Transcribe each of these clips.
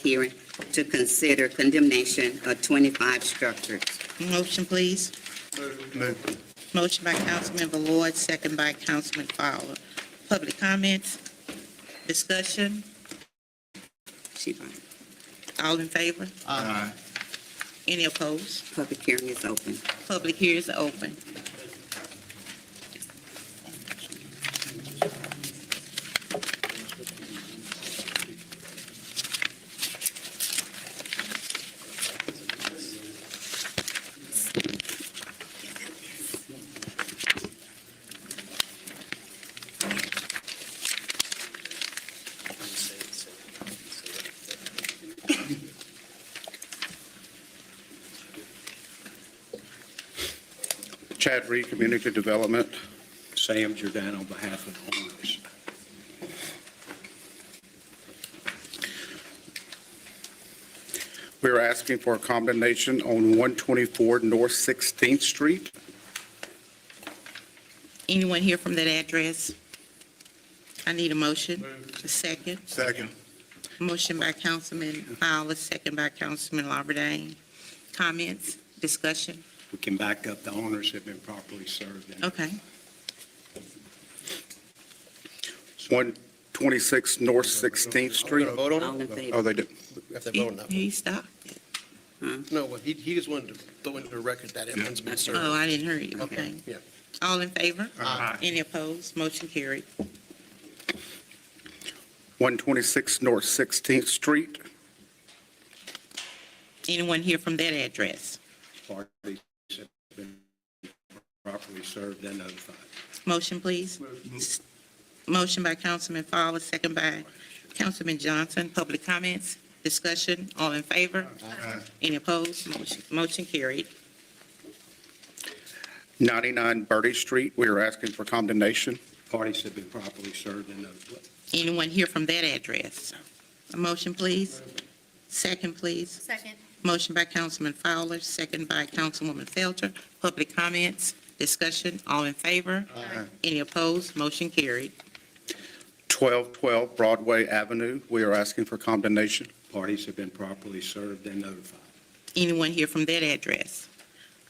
hearing to consider condemnation of 25 structures. Motion, please. Motion by Councilmember Lloyd, second by Councilman Fowler. Public comments, discussion, She fine. all in favor? Aye. Any opposed? Public hearing is open. Public hearing is open. Chad Reed, Community Development. Sam Jordan on behalf of the owners. We're asking for a condemnation on 124 North 16th Street. Anyone here from that address? I need a motion. A second. Second. Motion by Councilman Fowler, second by Councilman Lawberdane. Comments, discussion? We can back up, the owners have been properly served. and- Okay. 126 North 16th Street. Vote on it? All in Oh, favor? they did. That's a vote He on that. he stopped. No, well, he, he just wanted to throw into the record that everyone's been served. Oh, I didn't hear you. Okay. Yeah. All in favor? Aye. Any opposed? Motion carried. 126 North 16th Street. Anyone here from that address? Parties have been properly served and notified. Motion, please. Motion by Councilman Fowler, second by Councilman Johnson. Public comments, discussion, all in favor? Any opposed? Motion- Motion carried. 99 Birdie Street. We are asking for condemnation. Parties have been properly served and notified. Anyone here from that address? A motion, please. Second, please. Second. Motion by Councilman Fowler, second by Councilwoman Felter. Public comments, discussion, all in favor? Any opposed? Motion carried. 1212 Broadway Avenue. We are asking for condemnation. Parties have been properly served and notified. Anyone here from that address?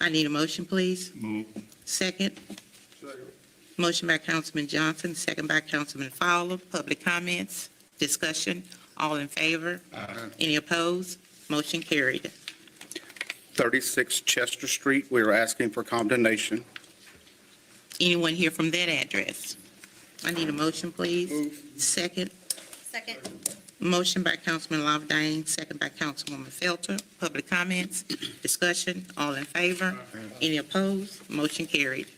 I need a motion, please. Second. Motion by Councilman Johnson, second by Councilman Fowler. Public comments, discussion, all in favor? Any opposed? Motion carried. 36 Chester Street. We are asking for condemnation. Anyone here from that address? I need a motion, please. Second. Second. Motion by Councilman Lawberdane, second by Councilwoman Felter. Public comments, discussion, all in favor? Any opposed? Motion carried.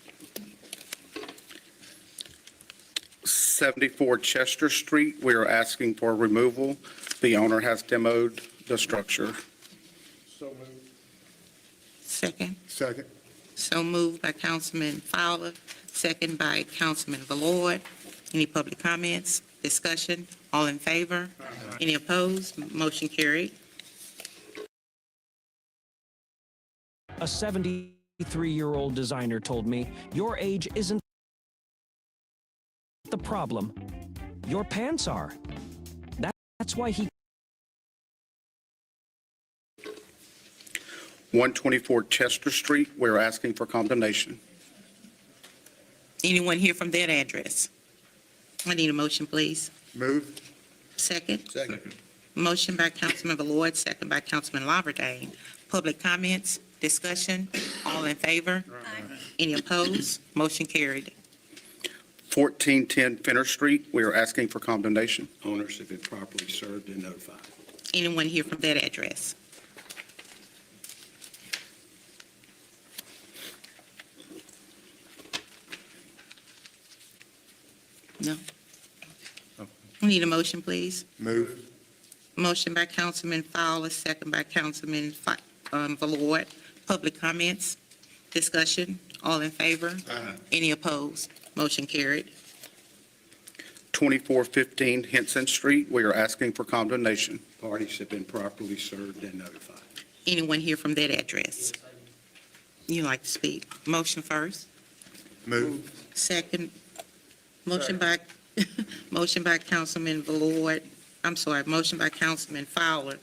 74 Chester Street. We are asking for removal. The owner has demoed the structure. Second. Second. So moved by Councilman Fowler, second by Councilman Ballard. Any public comments, discussion, all in favor? Any opposed? Motion carried. A 73 year old designer told me, Your age isn't the problem. Your pants are. That- That's why he 124 Chester Street. We're asking for condemnation. Anyone here from that address? I need a motion, please. Move. Second. Second. Motion by Councilman Lloyd, second by Councilman Lawberdane. Public comments, discussion, all in favor? Any opposed? Motion carried. 1410 Fenner Street. We are asking for condemnation. Owners have been properly served and notified. Anyone here from that address? No? We Need a motion, please? Move. Motion by Councilman Fowler, second by Councilman Fi- um, Valord. Public comments, discussion, all in favor? Any opposed? Motion carried. 2415 Henson Street. We are asking for condemnation. Parties have been properly served and notified. Anyone here from that address? You like to speak? Motion first? Move. Second, motion by, motion by Councilman Valord, I'm sorry, motion by Councilman Fowler,